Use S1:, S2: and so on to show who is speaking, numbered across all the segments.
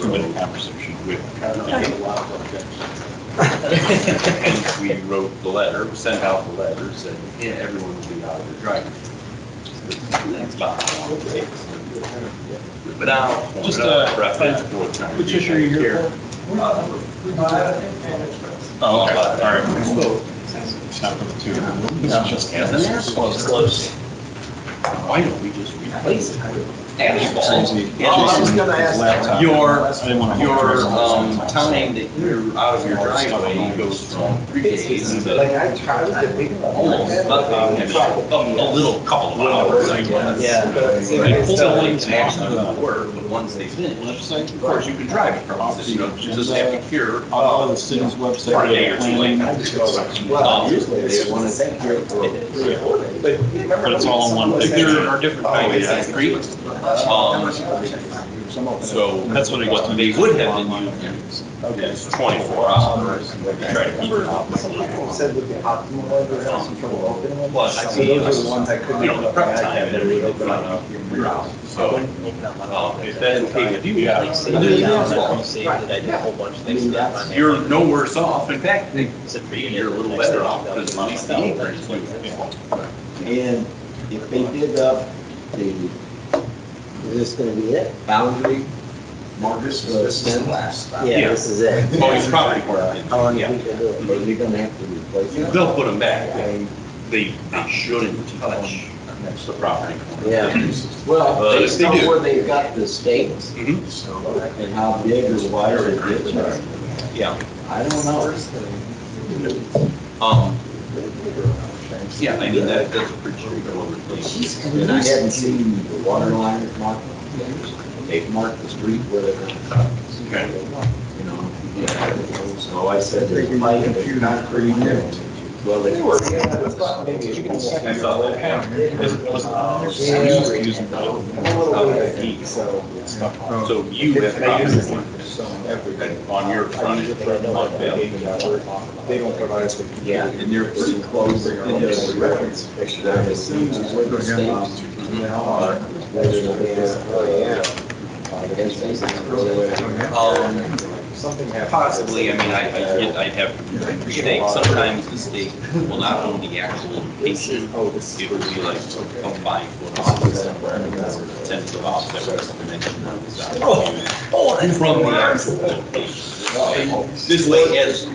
S1: with conversation with
S2: Kind of
S1: Conrad.
S2: a lot of
S1: And
S2: objections.
S1: we wrote the letter, sent out the letter, said, yeah, everyone will be out of the driveway. That's about how long it takes. But now,
S3: Just,
S1: just
S3: uh,
S1: a reference.
S3: Which issue are you here for? Oh, all right. It's not for the two. This is just.
S1: Yeah, that's just close.
S3: Close.
S1: Why don't we just replace it?
S3: Saves me-
S1: Yeah, I was
S4: gonna ask that.
S3: Laptop.
S1: Your-
S3: I didn't wanna hold
S1: Your
S3: yours.
S1: um, time that you're out of your driveway goes from three days to almost nothing, maybe Um, a little couple of hours, I guess. They pull the lanes and actually do the work, but once they finish, of course, you can drive across it, you know, you just have to cure.
S3: I'll go to the city's website.
S1: For a day or two later.
S3: But it's all in one
S1: Like,
S3: picture.
S1: There are different
S3: Oh,
S1: kinds of streets, so
S3: That's what I got.
S1: what they would have been used is twenty-four hours. Try to keep it up.
S4: Said with the optimal weather, else you trouble opening them.
S1: Plus, I
S4: So
S1: see,
S4: those are the ones that couldn't.
S1: you know, the prep time that we open
S4: Open
S1: up
S4: up.
S1: your house, so. um, It doesn't take a few
S3: Yeah.
S1: hours.
S5: Saved it, I saved it, I did a whole bunch of things. down on there.
S1: You're no worse off. In fact, they-
S5: Except for
S1: you're a little better off because money staying pretty quick.
S6: And if they dig up the, is this gonna be it? Boundary?
S4: Marcus, this is the last. stop.
S6: Yeah, this is it.
S1: Oh, it's probably worth it.
S6: How long do
S1: Yeah.
S6: you think they'll do it? Are you gonna have to replace it?
S1: They'll put them back.
S6: Okay,
S1: They, they shouldn't touch the property.
S6: Yeah, well,
S1: Uh,
S6: based
S1: they
S6: on
S1: do.
S6: where they've got the stakes
S3: Mm-hmm.
S6: and how big or wide it is,
S1: Yeah.
S6: I don't know.
S1: Um, yeah, I mean, that, that's a pretty straightforward thing.
S6: And I hadn't seen the water line marked. They've marked the street where they're gonna cut,
S1: Okay.
S6: you know? So I said, there's pipe, there's concrete, and- well, they were.
S1: I saw that.
S6: Oh,
S1: So you have property owners on your front,
S4: They don't provide us with.
S6: Yeah, and they're pretty close.
S4: They don't give us a reference.
S6: Picture that as soon as we're the state. Now, uh, whether it is, uh, against these, it's really-
S1: um,
S4: Something happened.
S1: possibly, I mean, I, I, get- I'd have to think, sometimes the state will not own the actual patient.
S4: Oh, this.
S1: It would be like a five foot offset, ten foot offset, or something that you know is not From the actual location. This way as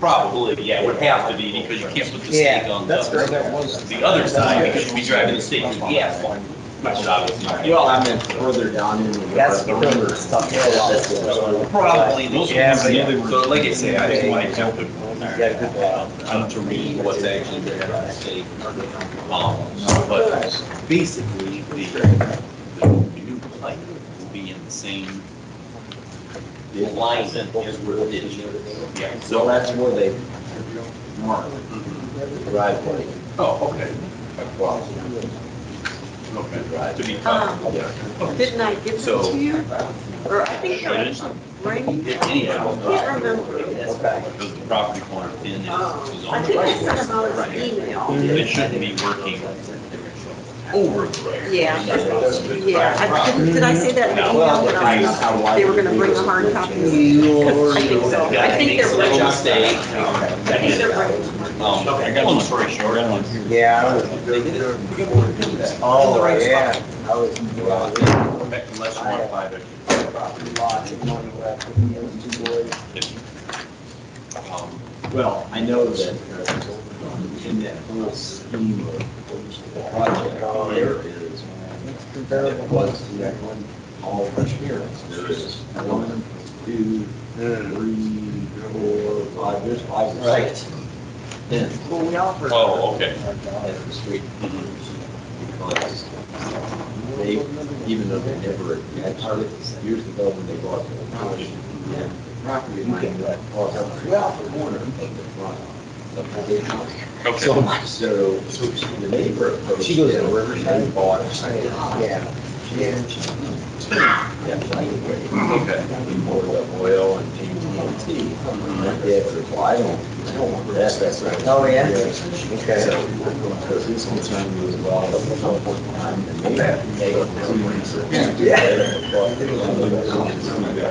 S1: Probably, yeah, it would have to be because you can't put the stake
S5: Yeah,
S1: on the, the other side because you'd be driving the stake through the asphalt. Which would obviously,
S6: Well, I meant further down in the.
S5: That's the river stuff.
S6: Yeah, that's what I'm-
S1: probably the
S3: Yeah, but yeah, they were-
S1: So like I say, I think like helping
S5: Yeah, good one.
S1: to read what's actually there on the stake. Um, But basically, the, the new pipe will be in the same line as where the ditch is. Yeah,
S6: So
S1: so.
S6: that's where they mark the driveway
S1: Oh, okay,
S6: across.
S1: okay, to be cut.
S2: Um, Didn't I give them
S1: So-
S2: to you? Or I think
S1: Should
S2: I
S1: it?
S2: bring you?
S1: Anyhow. uh,
S2: I can't remember.
S1: Because the property corner pin is is
S2: Oh,
S1: on
S2: I
S1: the
S2: think I
S1: right.
S2: sent them out as an email.
S1: It shouldn't be working over the road.
S2: Yeah, yeah. I- Did did I say that in the email that I was? They were gonna bring the hard copies? I think so. I think they're
S1: Little
S2: bringing,
S1: mistake.
S2: I think they're bringing.
S1: Um, I got one story short. I got one here.
S6: Yeah. Oh, yeah. I was-
S1: Unless you want to buy the um,
S6: Well, I know that uh, in that whole scheme of the project, there is, it was that one, all fresh appearance. There is one, two, three, four, five, there's five or six. Then,
S4: Well, we offered.
S1: Oh, okay.
S6: at the street,
S1: mhm.
S6: because they, even though they never had targets, years ago when they bought the property, that property line that "Oh, was on the south corner of the front of the big house.
S1: Okay.
S6: So much so, the neighbor approached.
S5: She goes to
S6: them,
S5: Riverside?
S6: and Bought a side house.
S5: Yeah.
S6: That right away,
S1: Okay.
S6: and poured up oil and TNT. My dad said, well, I don't, I don't want that, that's right.
S5: Oh, yeah?
S6: So, because his concern was, well, at some point in time, the neighbor. Yeah.